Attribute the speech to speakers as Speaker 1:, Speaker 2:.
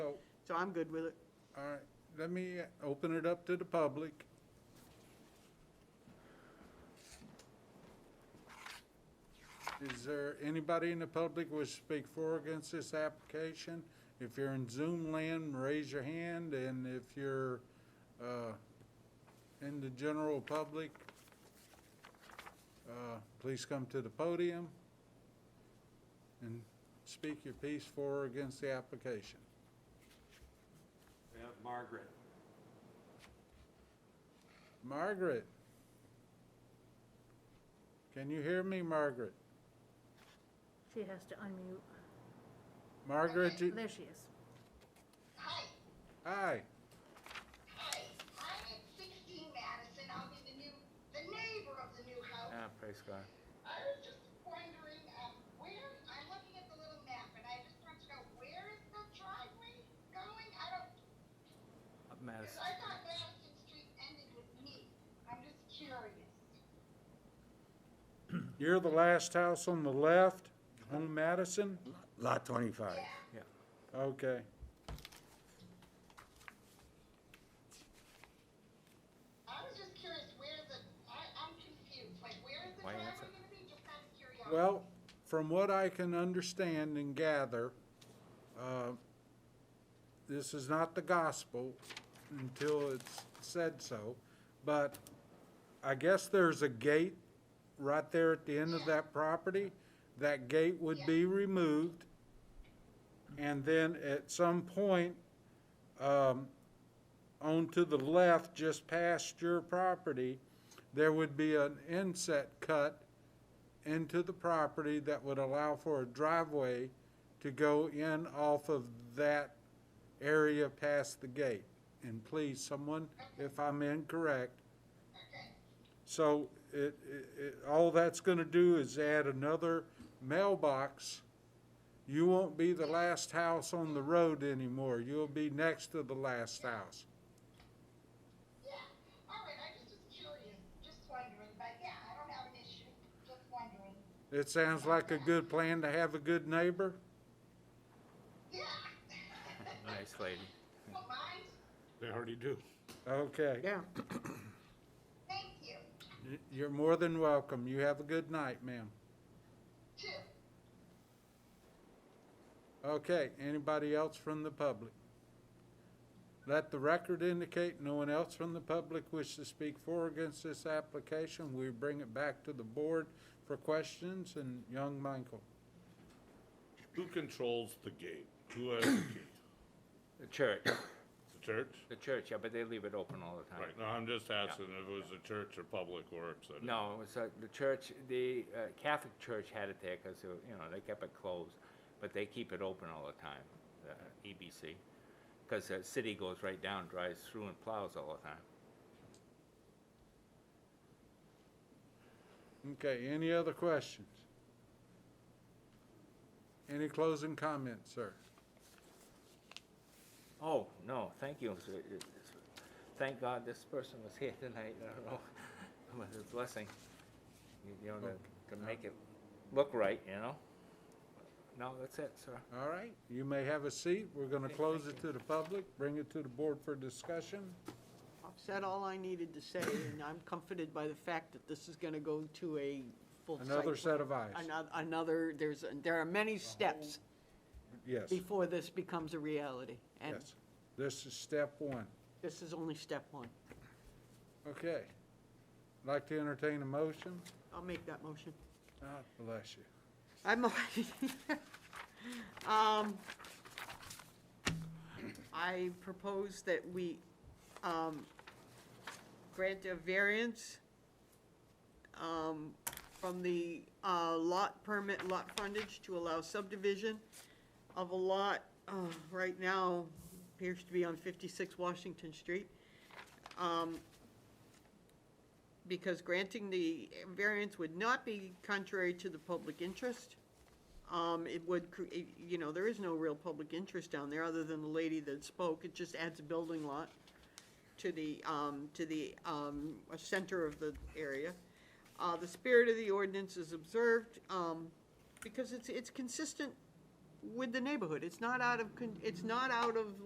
Speaker 1: so I'm good with it.
Speaker 2: All right, let me open it up to the public. Is there anybody in the public who would speak for or against this application? If you're in Zoom land, raise your hand, and if you're uh, in the general public, uh, please come to the podium and speak your piece for or against the application.
Speaker 3: We have Margaret.
Speaker 2: Margaret. Can you hear me, Margaret?
Speaker 4: She has to unmute.
Speaker 2: Margaret, you-
Speaker 4: There she is.
Speaker 5: Hi,
Speaker 2: hi.
Speaker 5: hi, I'm at sixteen Madison, I'll be the new, the neighbor of the new house.
Speaker 6: Ah, praise God.
Speaker 5: I was just wondering, um, where, I'm looking at the little map, and I just want to know, where is the driveway going? I don't,
Speaker 6: Up
Speaker 5: cause
Speaker 6: Madison.
Speaker 5: I thought Madison Street ended with me, I'm just curious.
Speaker 2: You're the last house on the left on Madison?
Speaker 7: Lot 25.
Speaker 2: Okay.
Speaker 5: I was just curious where the, I, I'm confused, like, where is the
Speaker 6: Why you
Speaker 5: driveway
Speaker 6: answer?
Speaker 5: gonna be, just out of curiosity?
Speaker 2: Well, from what I can understand and gather, uh, this is not the gospel until it's said so, but I guess there's a gate right there at the end of that property. That gate would be removed. And then at some point, um, on to the left, just past your property, there would be an inset cut into the property that would allow for a driveway to go in off of that area past the gate. And please, someone, if I'm incorrect. So it, it, it, all that's gonna do is add another mailbox. You won't be the last house on the road anymore. You'll be next to the last house.
Speaker 5: Yeah, all right, I just was curious, just wondering, but yeah, I don't have an issue, just wondering.
Speaker 2: It sounds like a good plan to have a good neighbor.
Speaker 5: Yeah.
Speaker 6: Nice lady.
Speaker 5: Don't mind,
Speaker 3: They already do.
Speaker 2: Okay.
Speaker 1: Yeah.
Speaker 5: thank you,
Speaker 2: Y- You're more than welcome. You have a good night, ma'am.
Speaker 5: too.
Speaker 2: Okay, anybody else from the public? Let the record indicate no one else from the public wishes to speak for or against this application. We bring it back to the board for questions, and young Michael.
Speaker 8: Who controls the gate? Who has the key?
Speaker 6: The church,
Speaker 8: The church?
Speaker 6: the church, yeah, but they leave it open all the time.
Speaker 8: Right, no, I'm just asking if it was the church or public works. I didn't-
Speaker 6: No, it was, uh, the church, the uh, Catholic Church had it there because, you know, they kept it closed, but they keep it open all the time, the E EBC. Because the city goes right down, drives through and plows all the time.
Speaker 2: Okay, any other questions? Any closing comments, sir?
Speaker 6: Oh, no, thank you. It's- it's- it's- Thank God this person was here tonight, I don't know, it was a blessing. You- You know, to, to make it look right, you know? No, that's it, sir.
Speaker 2: All right, you may have a seat. We're gonna close it to the public, bring it to the board for discussion.
Speaker 1: I've said all I needed to say, and I'm comforted by the fact that this is gonna go to a full site.
Speaker 2: Another set of eyes,
Speaker 1: Another, another, there's, there are many steps
Speaker 2: yes,
Speaker 1: before this becomes a reality. And
Speaker 2: yes. This is step one.
Speaker 1: this is only step one.
Speaker 2: Okay. Like to entertain a motion?
Speaker 1: I'll make that motion.
Speaker 2: God bless you.
Speaker 1: I'm, um, I propose that we, um, grant a variance, um, from the, uh, lot permit, lot frontage to allow subdivision of a lot, uh, right now appears to be on fifty-six Washington Street. Um, because granting the variance would not be contrary to the public interest. Um, it would create, you know, there is no real public interest down there, other than the lady that spoke, it just adds a building lot to the, um, to the, um, uh, center of the area. Uh, the spirit of the ordinance is observed, um, because it's, it's consistent with the neighborhood, it's not out of, con- it's not out of